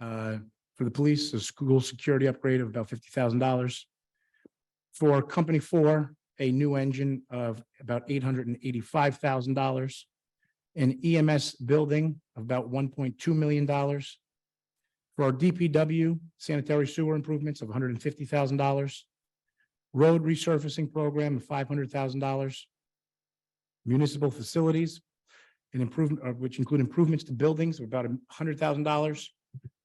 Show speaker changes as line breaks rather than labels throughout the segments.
uh, for the police, a school security upgrade of about fifty thousand dollars. For company four, a new engine of about eight hundred and eighty-five thousand dollars. An EMS building of about one point two million dollars. For our DPW sanitary sewer improvements of hundred and fifty thousand dollars. Road resurfacing program of five hundred thousand dollars. Municipal facilities, an improvement, uh, which include improvements to buildings of about hundred thousand dollars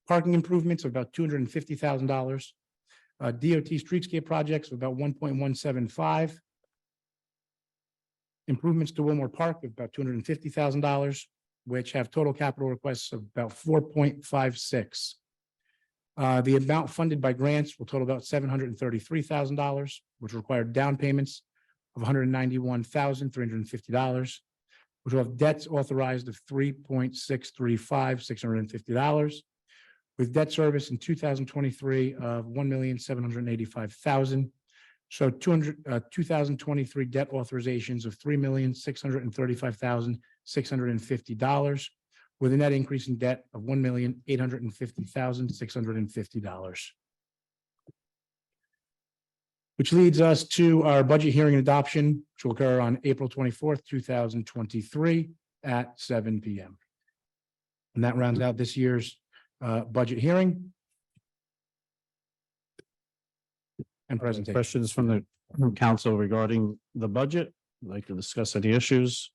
parking improvements of about two hundred and fifty thousand dollars. uh, DOT streetscape projects of about one point one seven five. Improvements to Wilmore Park of about two hundred and fifty thousand dollars, which have total capital requests of about four point five six. Uh, The amount funded by grants will total about seven hundred and thirty-three thousand dollars, which require down payments of one hundred and ninety-one thousand three hundred and fifty dollars, which will have debts authorized of three point six three five, six hundred and fifty dollars with debt service in two thousand twenty-three of one million, seven hundred and eighty-five thousand. So two hundred, uh, two thousand twenty-three debt authorizations of three million, six hundred and thirty-five thousand, six hundred and fifty dollars with a net increase in debt of one million, eight hundred and fifty thousand, six hundred and fifty dollars. Which leads us to our budget hearing and adoption, which will occur on April twenty-fourth, two thousand twenty-three at seven P M. And that rounds out this year's uh, budget hearing. And presentation.
Questions from the from council regarding the budget? I'd Like to discuss any issues?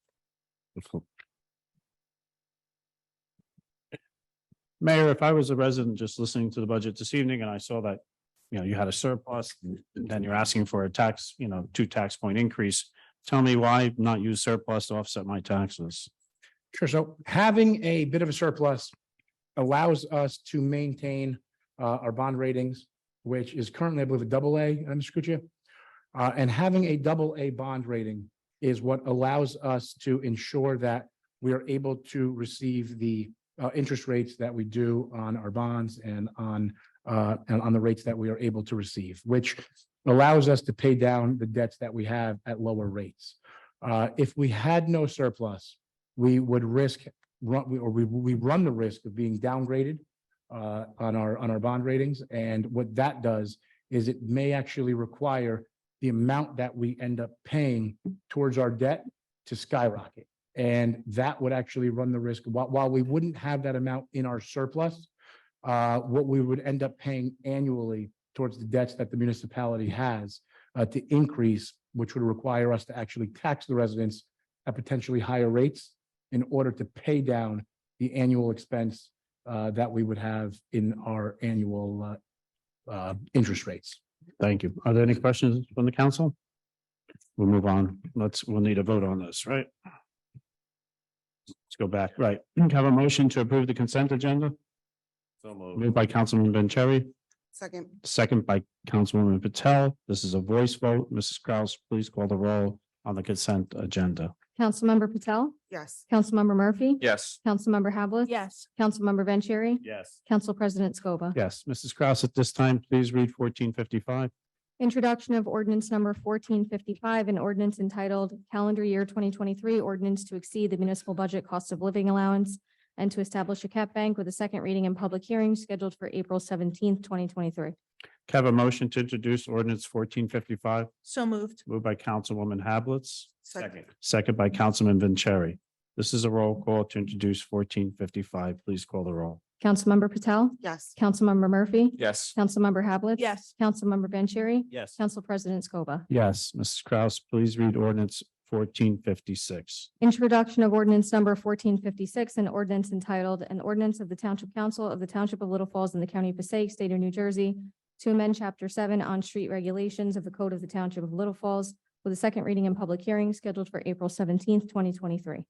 Mayor, if I was a resident just listening to the budget this evening and I saw that, you know, you had a surplus, then you're asking for a tax, you know, two tax point increase. Tell me why not use surplus to offset my taxes?
Sure. So having a bit of a surplus allows us to maintain uh, our bond ratings, which is currently, I believe, a double A, uh, Mr. Kucha. Uh, And having a double A bond rating is what allows us to ensure that we are able to receive the uh, interest rates that we do on our bonds and on uh, and on the rates that we are able to receive, which allows us to pay down the debts that we have at lower rates. Uh, If we had no surplus, we would risk, run, we- or we, we run the risk of being downgraded uh, on our, on our bond ratings. And what that does is it may actually require the amount that we end up paying towards our debt to skyrocket. And that would actually run the risk, while, while we wouldn't have that amount in our surplus, uh, what we would end up paying annually towards the debts that the municipality has uh, to increase, which would require us to actually tax the residents at potentially higher rates in order to pay down the annual expense uh, that we would have in our annual uh, uh, interest rates.
Thank you. Are there any questions from the council? We'll move on. Let's, we'll need a vote on this, right? Let's go back, right. Can I Have a motion to approve the consent agenda? Moved by Councilman Vanchery,
Second,
second by Councilwoman Patel. This is a voice vote. Mrs. Kraus, please call the roll on the consent agenda.
Councilmember Patel,
yes.
Councilmember Murphy.
Yes.
Councilmember Havlet.
Yes.
Councilmember Vanchery,
Yes.
Council President Scoba.
Yes, Mrs. Kraus, at this time, please read fourteen fifty-five.
Introduction of ordinance number fourteen fifty-five, an ordinance entitled Calendar Year twenty twenty-three Ordinance to Exceed the Municipal Budget Cost of Living Allowance and to Establish a Cap Bank with a second reading and public hearing scheduled for April seventeenth, twenty twenty-three.
Have a motion to introduce ordinance fourteen fifty-five,
So moved.
moved by Councilwoman Hablitz.
Second,
Second by Councilman Vanchery. This is a roll call to introduce fourteen fifty-five. Please call the roll.
Councilmember Patel,
yes.
Councilmember Murphy.
Yes.
Councilmember Havlet.
Yes.
Councilmember Vanchery,
Yes.
Council President Scoba.
Yes, Mrs. Kraus, please read ordinance fourteen fifty-six.
Introduction of ordinance number fourteen fifty-six, an ordinance entitled, an ordinance of the Township Council of the Township of Little Falls in the County of Passaic, State of New Jersey, to amend chapter seven on street regulations of the Code of the Township of Little Falls with a second reading and public hearing scheduled for April seventeenth, twenty twenty-three.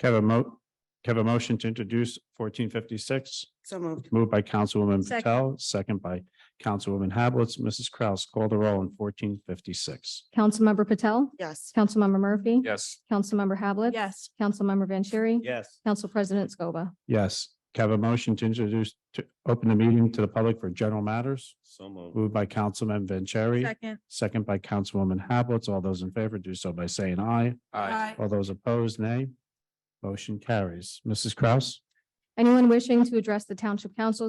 Have a mo, have a motion to introduce fourteen fifty-six,
So moved,
moved by Councilwoman
Second.
Patel, second by Councilwoman Hablitz. Mrs. Kraus, call the roll on fourteen fifty-six.
Councilmember Patel,
yes.
Councilmember Murphy.
Yes.
Councilmember Havlet.
Yes.
Councilmember Vanchery.
Yes.
Council President Scoba.
Yes, have a motion to introduce, to open the meeting to the public for general matters,
So moved.
moved by Councilman Vanchery.
Second,
Second by Councilwoman Hablitz. All those in favor do so by saying aye.
aye.
All those opposed, nay. Motion carries. Mrs. Kraus?
Anyone wishing to address the Township Council